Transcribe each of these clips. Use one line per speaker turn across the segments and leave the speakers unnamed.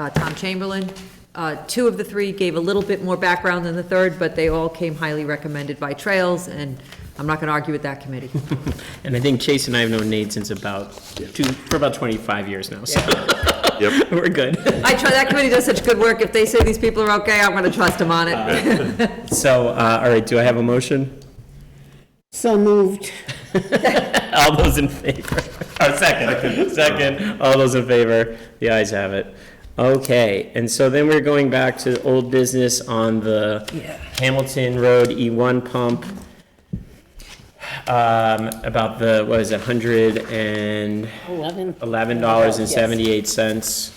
uh, Tom Chamberlain. Uh, Two of the three gave a little bit more background than the third, but they all came highly recommended by Trails, and I'm not going to argue with that committee.
And I think Chase and I have known Nate since about, two, for about 25 years now, so
Yep,
we're good.
I try, that committee does such good work, if they say these people are okay, I'm going to trust them on it.
So, uh, all right, do I have a motion?
So moved.
All those in favor? Or second, second, all those in favor? The ayes have it. Okay, and so then we're going back to old business on the Hamilton Road E1 pump. Um, About the, what is it, 100 and?
Eleven.
eleven dollars and seventy-eight cents.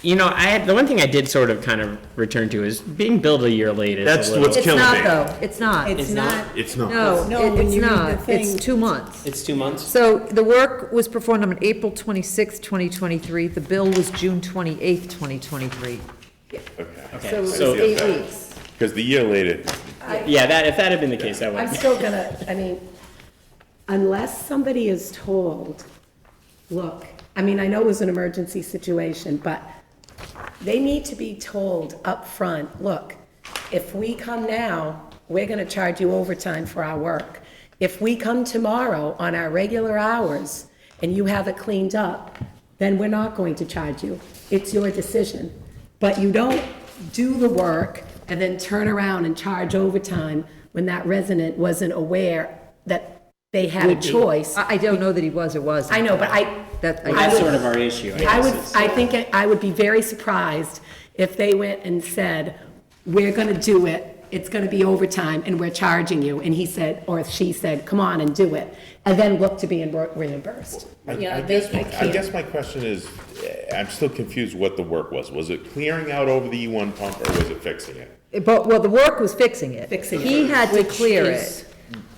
You know, I had, the one thing I did sort of kind of return to is being billed a year late is a
That's
little-
what's-
It's
killing
not,
me.
though, it's not.
It's not,
it's not.
No,
No, when
it's
you read the
not, it's
thing-
two months.
It's two months?
So the work was performed on April twenty sixth, 2023. The bill was June twenty eighth, 2023.
Okay.
So it's
so-
eight weeks.
Because the year later,
Yeah, that, if that had been the case, that
I'm
would,
still gonna, I mean, unless somebody is told, look, I mean, I know it was an emergency situation, but they need to be told up front. look, if we come now, we're gonna charge you overtime for our work. If we come tomorrow on our regular hours and you have it cleaned up, then we're not going to charge you. It's your decision. But you don't do the work and then turn around and charge overtime when that resident wasn't aware that they had a choice.
I I don't know that he was or wasn't.
I know, but I,
That,
I
I-
that's
would-
sort of our issue, I
I
guess.
would,
is-
I think, it- I would be very surprised if they went and said, we're going to do it, it's going to be overtime, and we're charging you, and he said, or she said, come on and do it, and then look to be reimbursed.
I
Yeah,
I
they-
guess,
I
I
can't.
guess my question is, eh, I'm still confused what the work was. Was it clearing out over the E1 pump or was it fixing it?
but, well, the work was fixing it.
Fixing it,
He had to
which
clear
is-
it,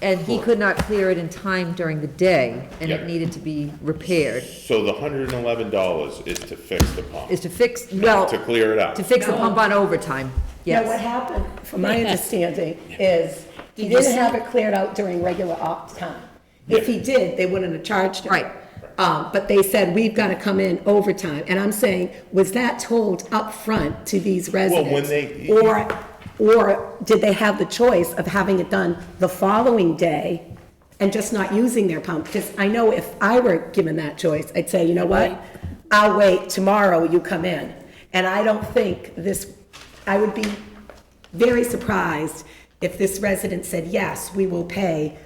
and he could not clear it in time during the day, and
Yeah.
it needed to be repaired,
So the hundred and eleven dollars is to fix the pump,
is to fix, well,
to clear it out.
to fix the
No.
pump on overtime,
Now, what
yes.
happened, from my understanding, is he didn't have it cleared out during regular op time. If he did, they wouldn't have charged him.
Right.
Um, But they said, we've got to come in overtime. And I'm saying, was that told up front to these
when
residents?
they-
Or, or did they have the choice of having it done the following day and just not using their pump? Because I know if I were given that choice, I'd say, you know what? I'll wait, tomorrow you come in. And I don't think this, I would be very surprised if this resident said, yes, we will pay,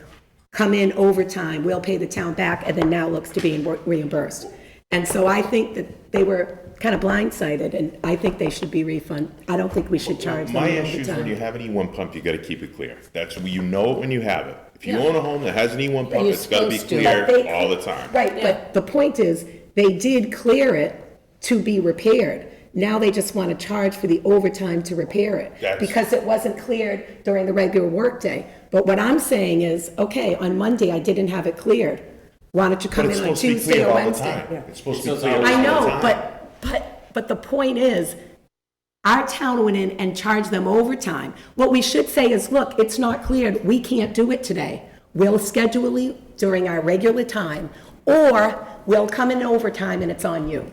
come in overtime, we'll pay the town back, and then now looks to be reimbursed. And so I think that they were kind of blindsided, and I think they should be refunded. I don't think we should charge them
My issue is when you
overtime.
have an E1 pump, you gotta keep it clear. That's, when you know it when you have it. If you own a home that has an E1 pump, it's gotta be clear
But they-
all the time.
Right, but the point is, they did clear it to be repaired. Now they just want to charge for the overtime to repair it.
That's-
Because it wasn't cleared during the regular workday. But what I'm saying is, okay, on Monday, I didn't have it cleared. Why don't you
But
come
it's
in on
supposed to be
Tuesday
clear
or
all the
Wednesday?
time. It's supposed to be
It's
clear all the
always-
time.
I know, but, but, but the point is, our town went in and charged them overtime. What we should say is, look, it's not cleared, we can't do it today. We'll schedule it during our regular time, or we'll come in overtime and it's on you.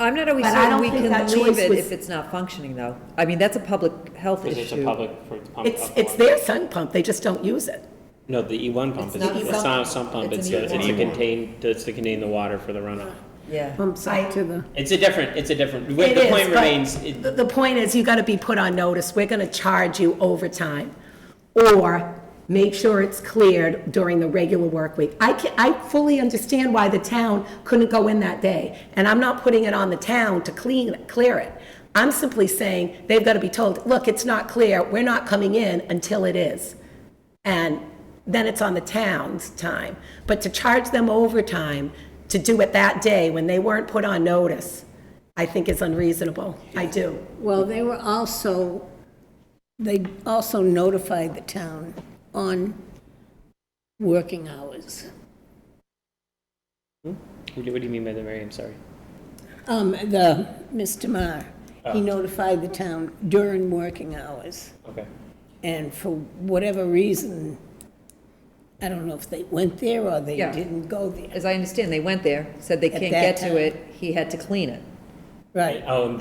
I'm not always
But I
certain
don't
we
think
can
that
leave
choice
it
was-
if it's not functioning, though. I mean, that's a public health issue.
It's a public, for the pump.
It's,
up
it's
one.
their sun pump, they just don't use it.
No, the E1 pump, is
E
not a
it's
pump.
not a sump pump,
It's
it's,
an
a- it's to
E1.
contain, it's to contain the water for the runoff.
Yeah.
Pump site to the.
It's a different, it's a different,
It
the
is,
point
but
remains, it-
The the point is, you gotta be put on notice, we're gonna charge you overtime, or make sure it's cleared during the regular work week. I can, I fully understand why the town couldn't go in that day, and I'm not putting it on the town to clean, clear it. I'm simply saying, they've gotta be told, look, it's not clear, we're not coming in until it is. And then it's on the town's time. But to charge them overtime to do it that day when they weren't put on notice, I think is unreasonable. I do.
Well, they were also, they also notified the town on working hours.
what do what do you mean by that, Mary, I'm sorry?
Um, the, Mr. Marr, he notified the town during working hours.
Okay.
And for whatever reason, I don't know if they went there or they
Yeah.
didn't go there.
As I understand, they went there, said they
At
can't
that
get to
time.
it, he had to clean it.
Right.
Oh, and